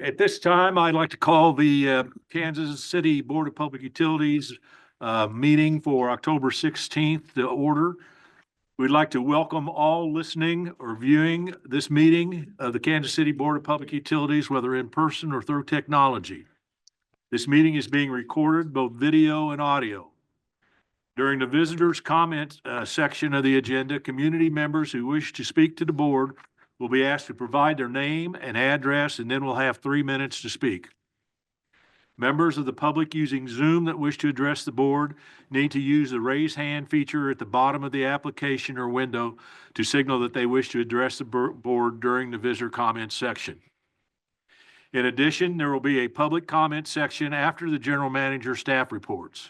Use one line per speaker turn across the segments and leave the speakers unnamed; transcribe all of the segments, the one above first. At this time, I'd like to call the uh, Kansas City Board of Public Utilities uh, meeting for October 16th to order. We'd like to welcome all listening or viewing this meeting of the Kansas City Board of Public Utilities, whether in person or through technology. This meeting is being recorded, both video and audio. During the visitors' comment uh, section of the agenda, community members who wish to speak to the board will be asked to provide their name and address, and then we'll have three minutes to speak. Members of the public using Zoom that wish to address the board need to use the raise hand feature at the bottom of the application or window to signal that they wish to address the bur- board during the visitor comment section. In addition, there will be a public comment section after the general manager staff reports.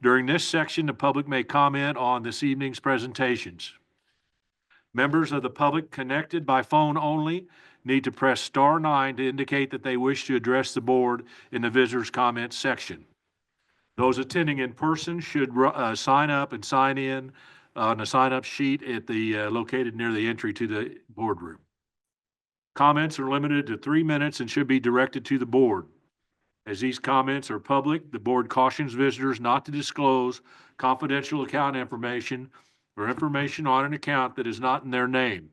During this section, the public may comment on this evening's presentations. Members of the public connected by phone only need to press star nine to indicate that they wish to address the board in the visitors' comments section. Those attending in person should ru- uh, sign up and sign in on a sign-up sheet at the, uh, located near the entry to the boardroom. Comments are limited to three minutes and should be directed to the board. As these comments are public, the board cautions visitors not to disclose confidential account information or information on an account that is not in their name.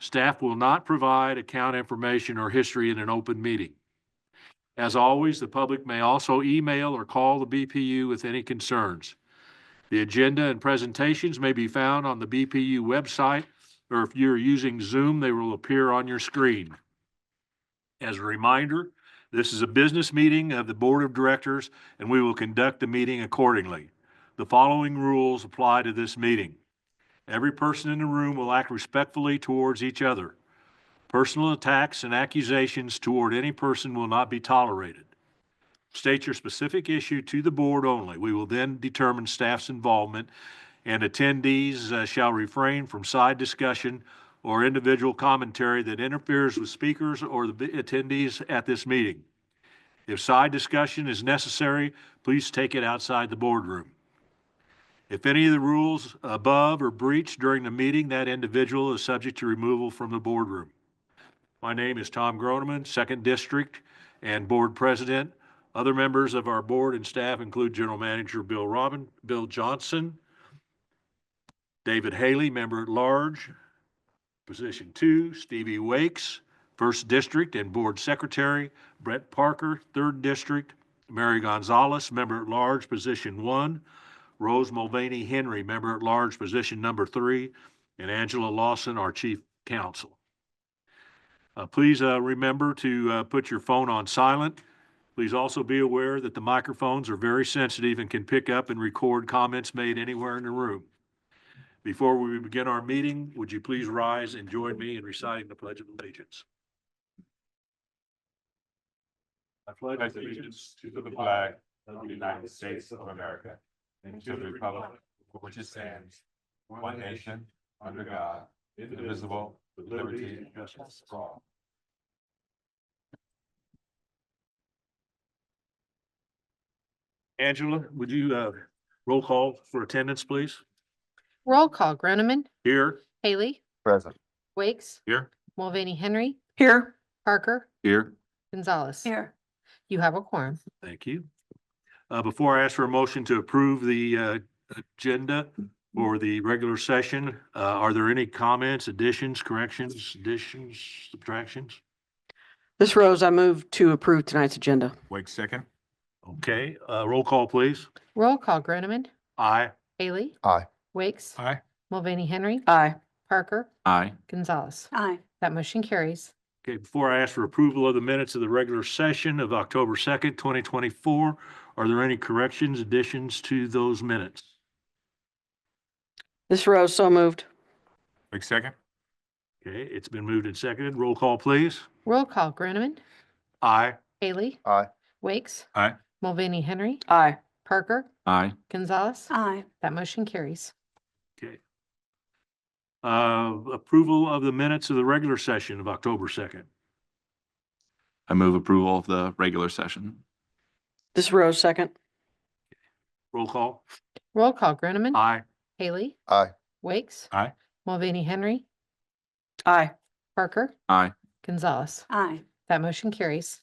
Staff will not provide account information or history in an open meeting. As always, the public may also email or call the BPU with any concerns. The agenda and presentations may be found on the BPU website, or if you're using Zoom, they will appear on your screen. As a reminder, this is a business meeting of the Board of Directors, and we will conduct the meeting accordingly. The following rules apply to this meeting. Every person in the room will act respectfully towards each other. Personal attacks and accusations toward any person will not be tolerated. State your specific issue to the board only. We will then determine staff's involvement, and attendees uh, shall refrain from side discussion or individual commentary that interferes with speakers or the attendees at this meeting. If side discussion is necessary, please take it outside the boardroom. If any of the rules above are breached during the meeting, that individual is subject to removal from the boardroom. My name is Tom Groneman, Second District and Board President. Other members of our board and staff include General Manager Bill Robin, Bill Johnson, David Haley, Member at Large, Position Two, Stevie Wakes, First District and Board Secretary, Brett Parker, Third District, Mary Gonzalez, Member at Large, Position One, Rose Mulvaney Henry, member at large, position number three, and Angela Lawson, our chief counsel. Uh, please, uh, remember to, uh, put your phone on silent. Please also be aware that the microphones are very sensitive and can pick up and record comments made anywhere in the room. Before we begin our meeting, would you please rise and join me in reciting the Pledge of Allegiance? I
pledge allegiance to the flag of the United States of America and to the republic for which it stands, one nation, under God, indivisible, with liberty and justice for all.
Angela, would you, uh, roll call for attendance, please?
Roll call, Groneman,
Here.
Haley,
Present.
Wakes,
Here.
Mulvaney Henry,
Here.
Parker,
Here.
Gonzalez.
Here.
You have a quorum.
Thank you. Uh, before I ask for a motion to approve the, uh, agenda for the regular session, uh, are there any comments, additions, corrections, additions, subtractions?
This Rose, I move to approve tonight's agenda.
Wait second.
Okay, uh, roll call, please.
Roll call, Groneman,
Aye.
Haley.
Aye.
Wakes,
Aye.
Mulvaney Henry,
Aye.
Parker,
Aye.
Gonzalez.
Aye.
That motion carries.
Okay, before I ask for approval of the minutes of the regular session of October second, twenty twenty-four, are there any corrections, additions to those minutes?
This Rose, so moved.
Wait second.
Okay, it's been moved and seconded. Roll call, please.
Roll call, Groneman,
Aye.
Haley.
Aye.
Wakes.
Aye.
Mulvaney Henry,
Aye.
Parker,
Aye.
Gonzalez.
Aye.
That motion carries.
Uh, approval of the minutes of the regular session of October second.
I move approval of the regular session.
This Rose, second.
Roll call.
Roll call, Groneman,
Aye.
Haley.
Aye.
Wakes.
Aye.
Mulvaney Henry,
Aye.
Parker,
Aye.
Gonzalez.
Aye.
That motion carries.